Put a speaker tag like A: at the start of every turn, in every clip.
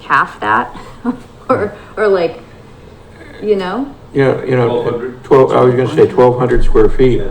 A: half that, or or like, you know,
B: You know, you know,
C: 1,200.
B: twelve, I was gonna say twelve hundred square feet.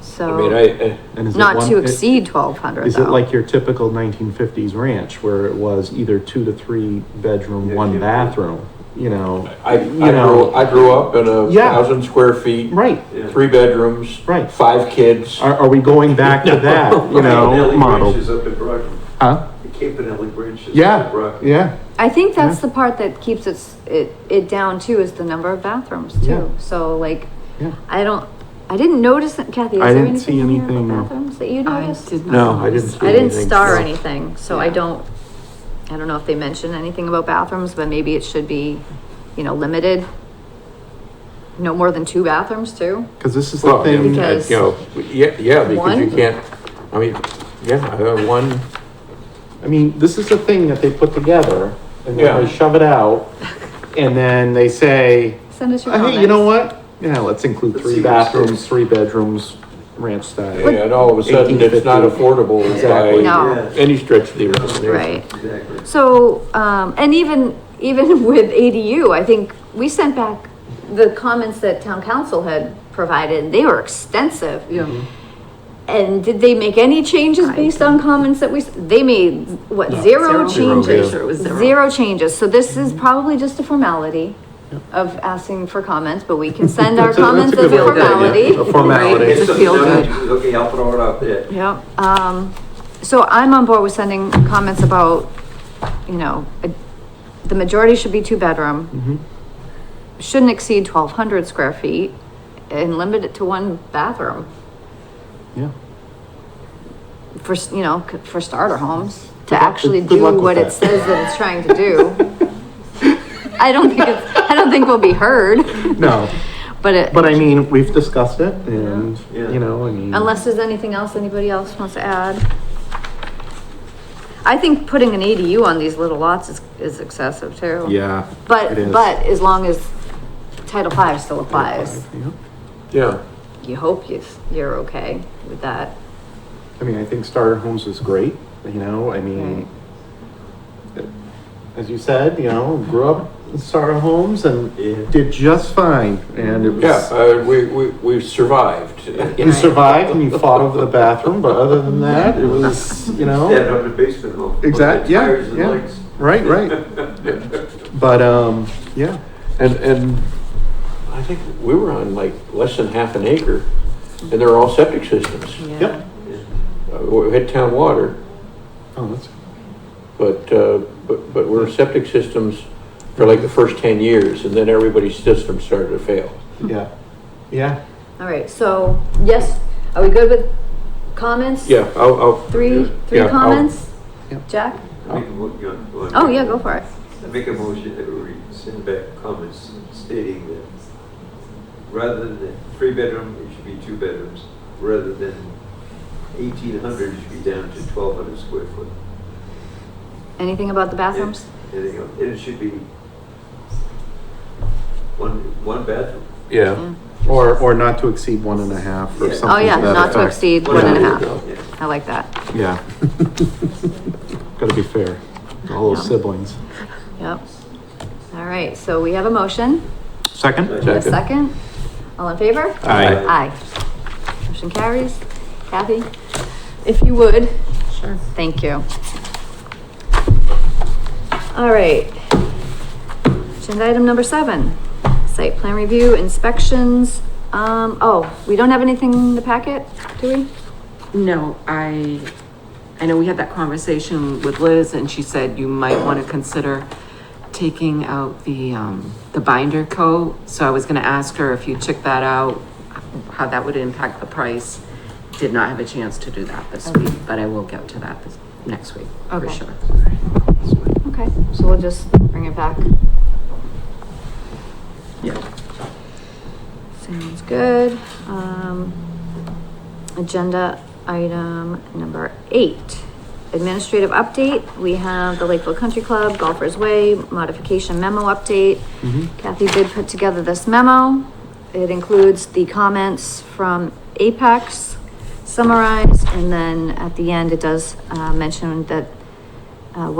A: so
B: I mean, I,
D: And is it
A: not
D: one-
A: to
D: it-
A: exceed twelve hundred.
D: Is it like your typical nineteen fifties ranch where it was either two to three bedroom,
C: Yeah,
D: one
C: yeah.
D: bathroom, you know?
B: I, I
D: You know-
B: grew, I grew up in a
D: Yeah.
B: thousand square feet,
D: Right,
C: Yeah.
B: three bedrooms,
D: Right.
B: five kids.
D: are, are we going back to that, you know,
C: Campanelli Bridge
D: model?
C: is up at Brockton.
D: Huh?
C: The Campanelli Bridge is up
D: Yeah,
C: at Brockton.
D: yeah,
A: I think that's the part that keeps it it it down too is the number of bathrooms too.
D: Yeah.
A: So like,
D: yeah.
A: I don't. I didn't notice that, Kathy. Is
D: I
A: there
D: didn't see
A: anything in here about
D: anything-
A: bathrooms that you
E: I
A: noticed?
E: did not.
B: No, I
E: notice.
B: didn't see
A: I didn't
B: anything.
A: star
B: No.
A: anything, so I
E: Yeah.
A: don't, I don't know if they mention anything about bathrooms, but maybe it should be, you know, limited. No more than two bathrooms too.
D: Cause this is the
B: Well, yeah,
D: thing,
A: Because-
B: you know, yeah, yeah, because you
A: One?
B: can't, I mean, yeah, uh, one,
D: I mean, this is the thing that they put together and then
B: Yeah.
D: they shove it out and then they say,
A: Send us your
D: "Oh,
A: comments.
D: hey, you know what? Yeah, let's include
C: Let's
D: three
C: see what's there."
D: bathrooms, three bedrooms, ranch style.
B: and all of a sudden, it's not
D: 1850.
B: affordable
D: Exactly.
B: by
A: No.
C: Yeah.
B: any stretch of the imagination.
A: Right.
C: Exactly.
A: So, um, and even, even with ADU, I think we sent back the comments that town council had provided, and they were extensive.
E: Yeah.
A: And did they make any changes based on comments that we, s- they made, what, zero
E: Zero. Zero,
A: changes?
E: yeah. Sure, it was zero. Mm-hmm.
A: Zero changes, so this is probably just a formality of asking for comments, but we can send our
D: That's a- that's a
A: comments as
D: good
A: a
D: way to put it, yeah.
A: formality.
D: A formality.
E: Right. It's a
C: Something
E: feel-good.
C: done, Okay, I'll throw it out there.
A: Yeah, um, so I'm on board with sending comments about, you know, a- the majority should be two bedroom.
D: Mm-hmm.
A: Shouldn't exceed twelve hundred square feet and limit it to one bathroom
D: Yeah.
A: for, s- you know, c- for starter homes. To
D: Good luck-
A: actually
D: good luck
A: do
D: with
A: what it
D: that.
A: says that it's trying to do. I don't think it's, I don't think we'll be heard,
D: No,
A: but it.
D: but I mean, we've discussed it and,
C: Yeah.
D: you know, I mean.
A: Unless there's anything else anybody else wants to add. I think putting an ADU on these little lots is, is excessive too.
D: Yeah. it
A: But,
D: is.
A: but as long as Title Five still applies,
D: Yeah.
B: Yeah,
A: you hope you, you're okay with that.
D: I mean, I think starter homes is great, you know, I mean, uh, as you said, you know, grew up in starter homes and
C: Yeah.
D: did just fine. And it
B: yeah,
D: was,
B: uh, we, we, we survived.
D: you survived and you fought over the bathroom, but other than that, it was, you
C: Stand
D: know,
C: up in the basement though.
D: Exact- yeah,
C: Tires and
D: yeah.
C: legs.
D: right, right. But, um, yeah,
B: And, and I think we were on like less than half an acre, and they're all septic systems.
D: yep.
C: Yeah.
B: Uh, We had town water,
D: Oh, that's,
B: but, uh, but, but we're septic systems for like the first ten years, and then everybody's system started to fail.
D: yeah, yeah.
A: All right, so, yes, are we good with comments?
B: Yeah, I'll, I'll.
A: Three,
B: yeah,
A: three
B: I'll-
A: comments?
D: Yep.
A: Jack?
C: Make a mo- you want- you want-
A: Oh, yeah, go for it.
C: I Make a motion that we send back comments stating that rather than three bedroom, it should be two bedrooms. Rather than eighteen hundred, it should be down to twelve hundred square foot.
A: Anything about the bathrooms?
C: And it- and it should be one, one bathroom.
B: Yeah.
D: Or, or not to exceed one and a half or
C: Yeah. Oh,
D: something.
A: Oh, yeah,
D: to that
A: not to
D: effect.
A: exceed one and a
B: Yeah.
A: half.
C: Yeah.
A: I like that,
D: Yeah. Gotta be fair. to All those siblings.
A: yep. All right, so we have a motion.
D: Second?
A: A
B: Second.
A: second? All in favor?
D: Aye.
A: Aye. Motion carries. Kathy, if you would,
E: Sure.
A: thank you. All right. Agenda item number seven, site plan review inspections. Um, oh, we don't have anything in the packet, do we?
E: No, I, I know we had that conversation with Liz and she said you might want to consider taking out the, um, the binder coat. So I was gonna ask her if you took that out, how that would impact the price. Did not have a chance to do that this week, but I will get to that this, next week, for
A: Okay.
E: sure.
A: Okay, so we'll just bring it back.
E: Yeah.
A: Sounds good. Um, agenda item number eight. Administrative update. We have the Lakeville Country Club, Golfers Way, modification memo update. Kathy did put together this memo. It includes the comments from Apex summarized, and then at the end, it does, uh, mention that